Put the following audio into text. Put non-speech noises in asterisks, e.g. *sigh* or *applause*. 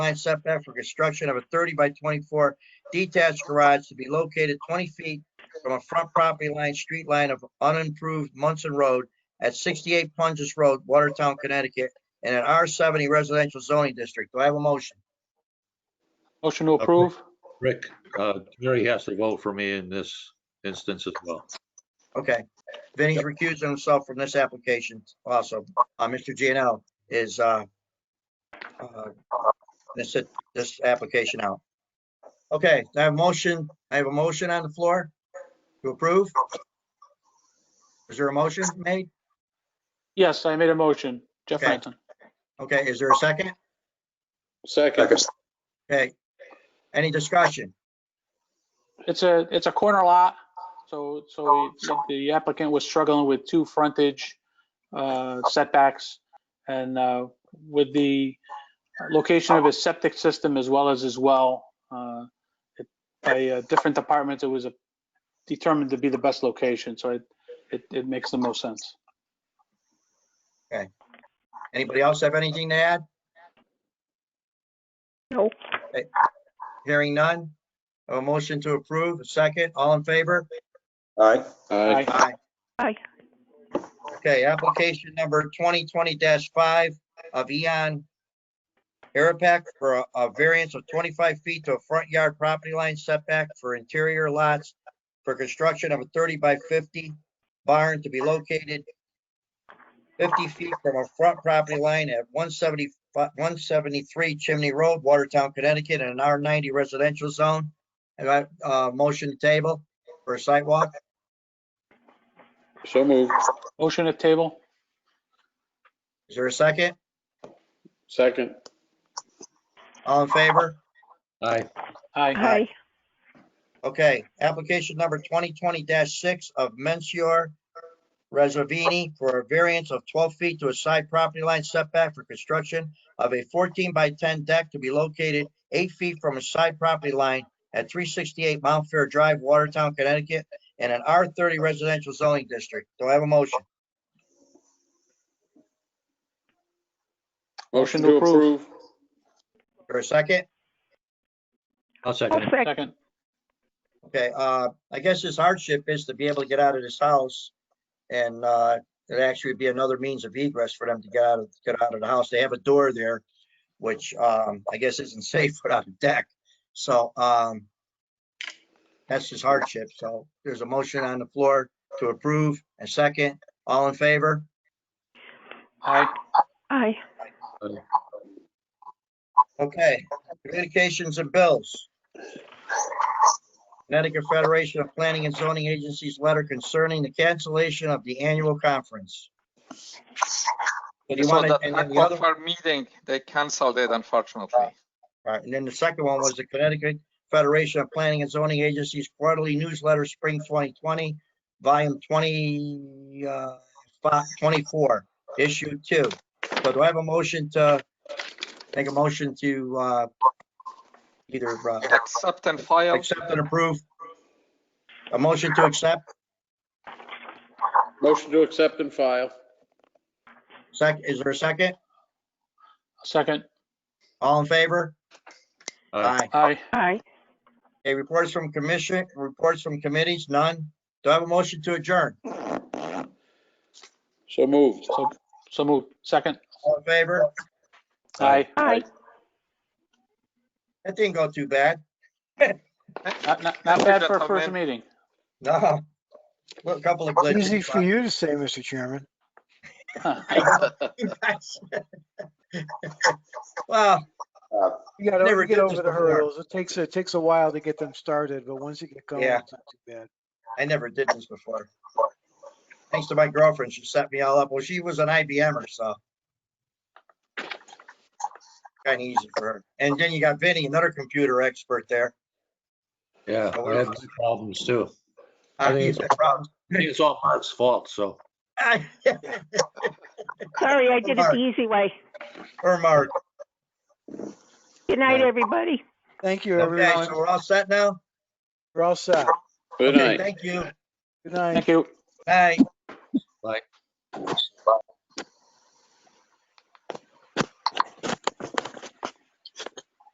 line setback for construction of a thirty by twenty-four detached garage to be located twenty feet from a front property line, street line of unimproved Munson Road at sixty-eight Punges Road, Watertown, Connecticut, in an R seventy residential zoning district. Do I have a motion? Motion to approve? Rick, uh, Mary has to vote for me in this instance as well. Okay. Vinnie's recusing himself from this application also. Uh, Mr. Gianello is, uh, uh, this, this application out. Okay, I have motion, I have a motion on the floor to approve. Is there a motion made? Yes, I made a motion. Jeff Okay. Franklin. Okay, is there a second? Second. Okay. Any discussion? It's a, it's a corner lot, so, so we- the applicant was struggling with two frontage uh, setbacks. And uh, with the location of his septic system as well as his well, uh, it- by uh, different departments, it was determined to be the best location, so it, it it makes the most sense. Anybody else have anything to add? Nope. Okay. Hearing none. A motion to approve, a second, all in favor? Aye. Aye. Aye. Aye. Okay, application number twenty twenty five of Eon Aeropac for a- a variance of twenty-five feet to a front yard property line setback for interior lots for construction of a thirty by fifty barn to be located fifty feet from a front property line at 175 one seventy-three Chimney Road, Watertown, Connecticut, in an R ninety residential zone. And I, uh, motion table for a sidewalk. So moved. Motion at table? Is there a second? Second. All in favor? Aye, Aye. Aye. Okay, application number twenty twenty six of Mensior Reservini for a variance of twelve feet to a side property line setback for construction of a fourteen by ten deck to be located eight feet from a side property line at three sixty-eight Mount Fair Drive, Watertown, Connecticut, in an R thirty residential zoning district. Do I have a motion? Motion to approve. For a second? I'll second I'll it. second. Second. Okay, uh, I guess his hardship is to be able to get out of this house. And, uh, it actually would be another means of egress for them to get out of, get out of the house. They have a door there, which, um, I guess isn't *laughs* safe without a deck. So, um, that's his hardship. So there's a motion on the floor to approve and second. All in favor? Aye. Aye. Okay, communications and bills. Connecticut Federation of Planning and Zoning Agencies letter concerning the cancellation of the annual conference. So do you So want to, that and then the other, Uh, aquifer meeting, they canceled it unfortunately. all right, and then the second one was the Connecticut Federation of Planning and Zoning Agencies quarterly newsletter, spring 2020, volume 20, uh, fi- 24, issue two. So do I have a motion to, make a motion to, uh, either, uh, Accept and file. Accept and approve. A motion to accept. Motion to accept and file. Sec, is there a second? Second. All in favor? Aye. Aye. Aye. Okay, reports from commission, reports from committees, none. Do I have a motion to adjourn? So moved. So, so moved. Second. All in favor? Aye. Aye. That didn't go too bad. Not, not not bad for a first meeting. No. Well, A couple of glitches. *laughs* Easy for you to say, Mr. Chairman. Well, You gotta Never you get did this over the before. hurdles. It takes, it takes a while to get them started, but once you get going, Yeah. it's not too bad. I never did this before. Thanks to my girlfriend, she set me all up. Well, she was an IBMer, er, so. Kind of easy for her. And then you got Vinny, another computer expert there. Yeah, I had my problems too. I Uh, think it's- he's got problems. *laughs* I think It's all Mark's fault, so. Sorry, I did it the easy way. Or Mark. Good night, Aye. everybody. Thank you, Okay, everyone. so we're all set now? We're all set. Good Okay, night. Thank you. Good night. Thank you. Bye. Bye.